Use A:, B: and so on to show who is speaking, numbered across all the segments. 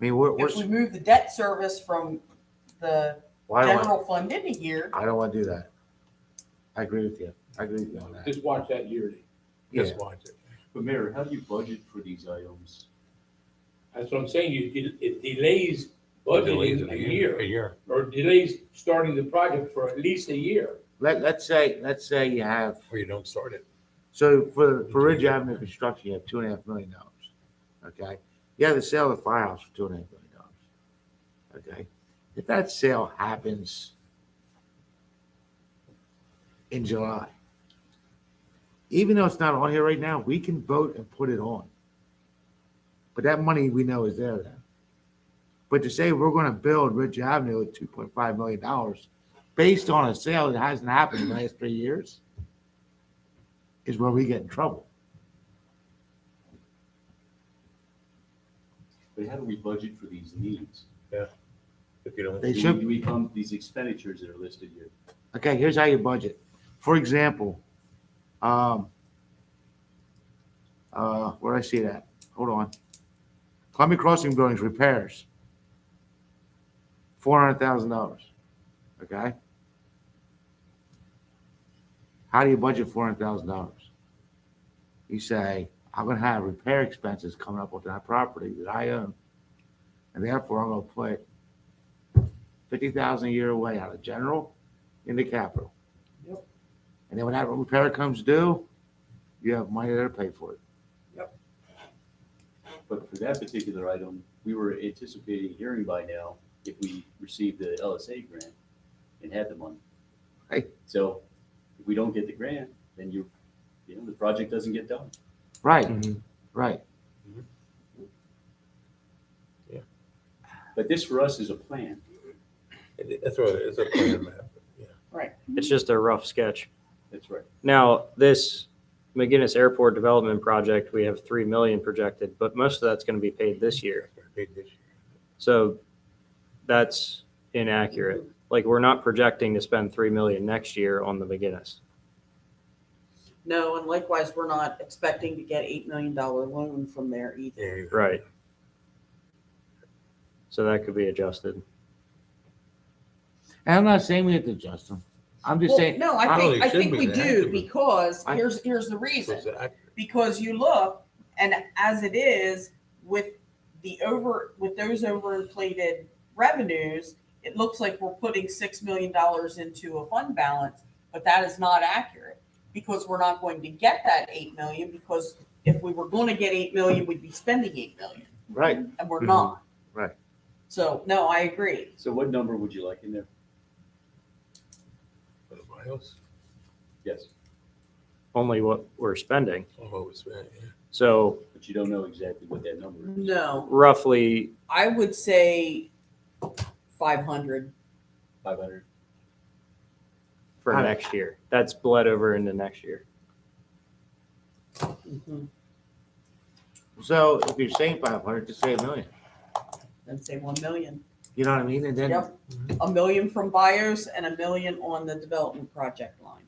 A: mean, we're, we're,
B: If we move the debt service from the
A: why don't
B: general fund into here,
A: I, I don't want to do that. I agree with you. I agree with you on that.
C: Just watch that yearly.
A: Yeah,
C: Just watch it.
D: But Mayor, how do you budget for these items?
C: That's what I'm saying. You, it- it delays budgeting a
E: A
C: year
E: year.
C: or delays starting the project for at least a year.
A: let, let's say, let's say you have,
E: Or you don't start it.
A: so for, for Ridge Avenue construction, you have two and a half million dollars. Okay? You have to sell the firehouse for two and a half million dollars. Okay? If that sale happens in July, even though it's not on here right now, we can vote and put it on. But that money we know is there then. But to say we're gonna build Ridge Avenue at two point five million dollars based on a sale that hasn't happened in the last three years is where we get in trouble.
D: But how do we budget for these needs?
E: If you don't,
A: They
D: Do we-
A: should,
D: Do we come, these expenditures that are listed here?
A: okay, here's how you budget. For example, um, uh, where I see that? Hold on. Columbia Crossing Buildings repairs. Four hundred thousand dollars. Okay? How do you budget four hundred thousand dollars? You say, I'm gonna have repair expenses coming up with that property that I own. And therefore, I'm gonna put fifty thousand a year away out of general into capital.
B: Yep.
A: And then when that repair comes due, you have money there to pay for it.
D: But for that particular item, we were anticipating hearing by now if we received the LSA grant and had the money.
A: Right.
D: So if we don't get the grant, then you, you know, the project doesn't get done.
A: Right,
E: Mhm.
A: right.
D: But this for us is a plan.
E: that's what, it's a plan map.
F: It's just a rough sketch.
D: That's right.
F: Now, this McGinnis Airport Development Project, we have three million projected, but most of that's gonna be paid this year. So that's inaccurate. Like, we're not projecting to spend three million next year on the McGinnis.
B: no, and likewise, we're not expecting to get eight million dollar loan from there either.
E: Yeah, you're-
F: Right. So that could be adjusted.
A: And I'm not saying we have to adjust them. I'm just
B: Well,
A: saying,
B: no,
A: I
B: I
E: don't
B: think,
E: think
B: I
E: it should
B: think
E: be
B: we
E: that,
B: do
E: but-
B: because
A: I-
B: here's, here's the
E: So
B: reason.
E: it's accurate.
B: because you look and as it is with the over with those overinflated revenues it looks like we're putting six million dollars into a fund balance but that is not accurate because we're not going to get that eight million because if we were going to get eight million we'd be spending eight million
A: right,
B: and we're not
A: Right.
B: so no i agree
D: So what number would you like in there?
E: Everybody else,
D: Yes,
F: Only what we're spending.
E: all over spent, yeah.
F: So
D: but you don't know exactly what that number is.
B: no
F: roughly,
B: i would say 500
D: Five hundred?
F: for
A: Huh.
F: next year. That's bled over into next year.
B: mm-hmm,
A: so if you're saying five hundred, just say a million.
B: and say 1 million
A: You know what I mean? And then,
B: Yep. A million from bios and a million on the development project line.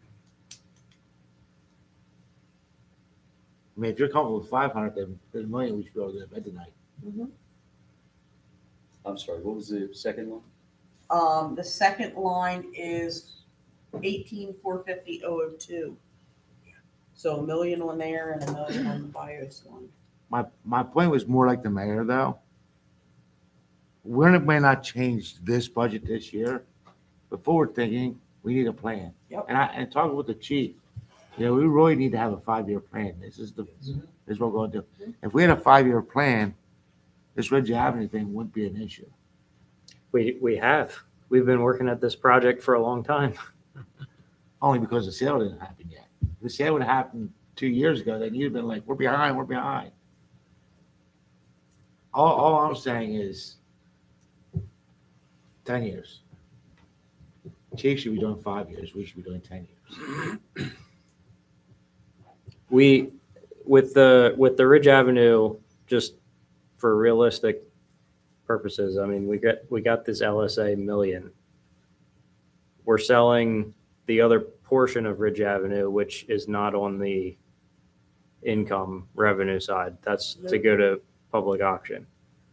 A: I mean, if you're comfortable with five hundred, then then a million, we should be able to get to bed tonight.
D: I'm sorry, what was the second one?
B: Um, the second line is eighteen four fifty oh oh two. So a million on there and a million on the bios line.
A: My, my point was more like the mayor though. We're, may not change this budget this year, but forward thinking, we need a plan.
B: Yep.
A: And I, and talking with the chief, you know, we really need to have a five-year plan. This is the, this is what we're gonna do. If we had a five-year plan, this Ridge Avenue thing wouldn't be an issue.
F: We, we have. We've been working at this project for a long time.
A: only because the sale didn't happen yet. If the sale would have happened two years ago, then you'd have been like, we're behind, we're behind. All, all I'm saying is 10 years. Chief should be doing five years. We should be doing 10 years.
F: We, with the, with the Ridge Avenue, just for realistic purposes, I mean, we got, we got this LSA million. We're selling the other portion of Ridge Avenue, which is not on the income revenue side. That's to go to public auction.